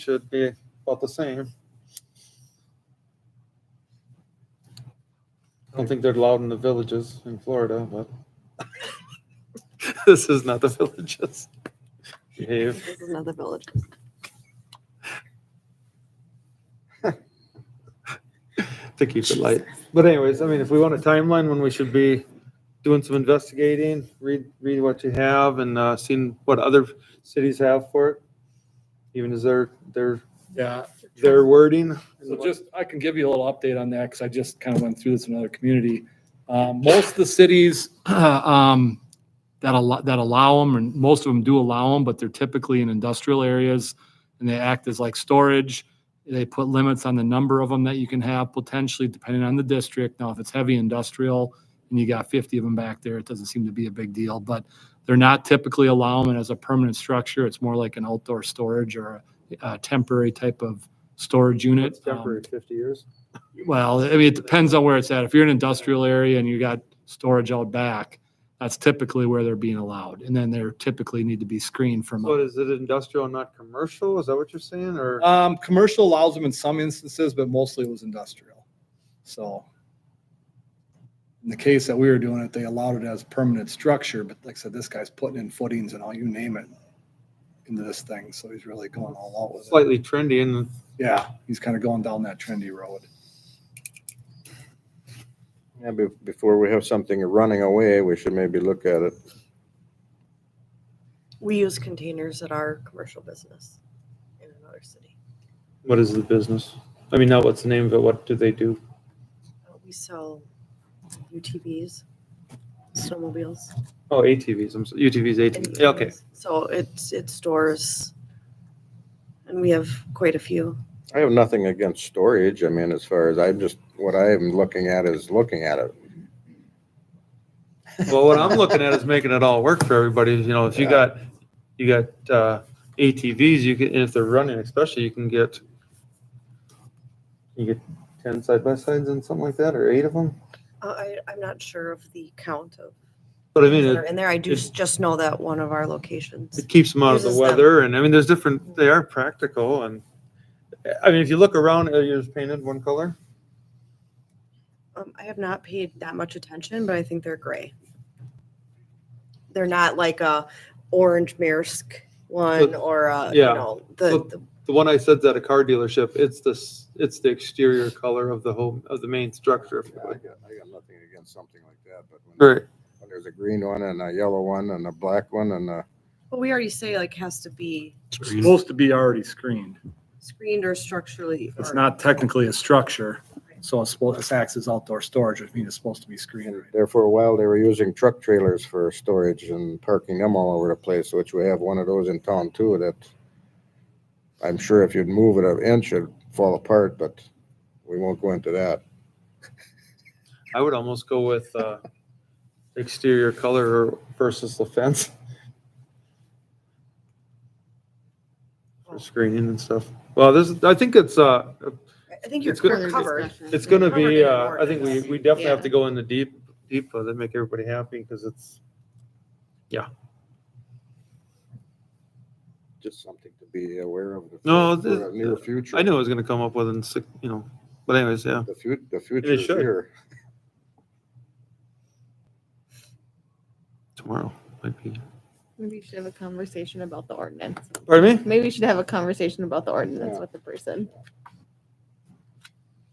should be about the same. I don't think they're allowed in the villages in Florida, but this is not the villages. Behave. This is not the village. to keep it light. But anyways, I mean, if we want a timeline when we should be doing some investigating, read, read what you have and, uh, seeing what other cities have for it. Even as their, their, Yeah, their wording. so just, I can give you a little update on that, because I just kind of went through this in another community. Um, Most of the cities um, that allow, that allow them, and most of them do allow them, but they're typically in industrial areas, and they act as like storage. They put limits on the number of them that you can have potentially, depending on the district. Now, if it's heavy industrial and you got 50 of them back there, it doesn't seem to be a big deal, but they're not typically allowing it as a permanent structure. It's more like an outdoor storage or a a temporary type of storage unit. It's temporary, fifty years. Um, Well, I mean, it depends on where it's at. If you're in an industrial area and you got storage out back, that's typically where they're being allowed. And then they're typically need to be screened from. So is it industrial and not commercial? Is that what you're saying or? Um, commercial allows them in some instances, but mostly it was industrial. So in the case that we were doing it, they allowed it as permanent structure, but like I said, this guy's putting in footings and all, you name it into this thing. So he's really going all out with it. Slightly trendy and Yeah, he's kind of going down that trendy road. Yeah, be- before we have something running away, we should maybe look at it. We use containers at our commercial business in another city. what is the business? I mean, not what's the name of it, what do they do? Uh, We sell UTVs, snowmobiles. E Oh, ATVs, I'm, so- UTVs, ATVs, Yeah, okay. So it's, it stores, and we have quite a few. I have nothing against storage. I mean, as far as I'm just, what I am looking at is looking at it. Well, what I'm looking at is making it all work for everybody. You know, if you Yeah. got, you got uh, ATVs, you can, and if they're running, especially, you can get, you get ten side by sides and something like that, or eight of them. Uh, I, I'm not sure of the count of But I mean, things that are it, in there. I do it- s- just know that one of our locations. it keeps them out of the Uses them. weather, and I mean, there's different. They are practical, and I mean, if you look around, are yours painted one color? Um, I have not paid that much attention, but I think they're gray. They're not like a orange Maersk one or a, you yeah. know, the, Look- the, The one I said's at a car dealership. It's the s- it's the exterior color of the home of the main structure. Yeah, I got, I got nothing against something like that, but when, Right. when there's a green one and a yellow one and a black one and a, but we already say like has to be supposed to be already screened. screened or structurally. It's or- not technically a structure, so it's supposed, it acts as outdoor storage, which means it's supposed to be screened. and right? there for a while, they were using truck trailers for storage and parking them all over the place, which we have one of those in town too, that I'm sure if you'd move it an inch, it'd fall apart, but we won't go into that. I would almost go with uh, exterior color versus the fence for screening and stuff. Well, this, is- I think it's, uh, I think you're It's gonna- you're covered. it's gonna be, uh, I think we, we definitely have Yeah. to go in the deep, deep of it, make everybody happy, because it's, just something to be aware of. for- No, for the- the Near future. I knew I was gonna come up with in six, you know, but anyways, yeah. The future, the future is should. here. Tomorrow might be. Maybe you should have a conversation about the ordinance. Pardon me? Maybe you should have a conversation about the ordinance Yeah. with the person.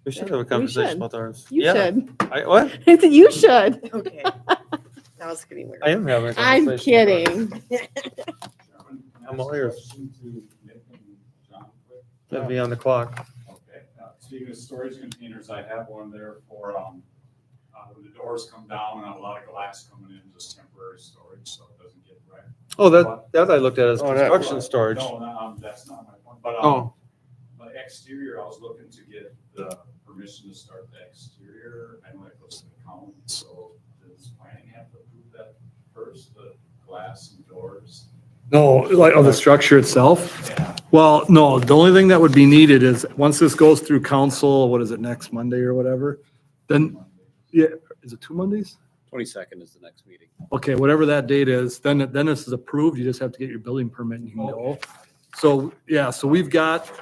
We should have a We conversation should. about ours. You Yeah. should. I, what? I said, you should. Okay. That was getting weird. I am having a conversation. I'm about it. kidding. I'm all ears. That'd Okay, be on the clock. uh, speaking of storage containers, I have one there for, um, uh, when the doors come down and a lot of glass coming in, just temporary storage, so it doesn't get wrecked. Oh, that, that I looked at as Oh, that- construction storage. No, no, um, that's not my point, but, Oh. um, but exterior, I was looking to get the permission to start the exterior, I know it goes to the county, so does planning have to approve that first, the glass and doors? No, like of the structure itself? Yeah, Well, no, the only thing that would be needed is, once this goes through council, what is it, next Monday or whatever? Then, yeah, is it two Mondays? Twenty-second is the next meeting. Okay, whatever that date is, then, then this is approved, you just have to get your building permit and you can go. So, yeah, so we've got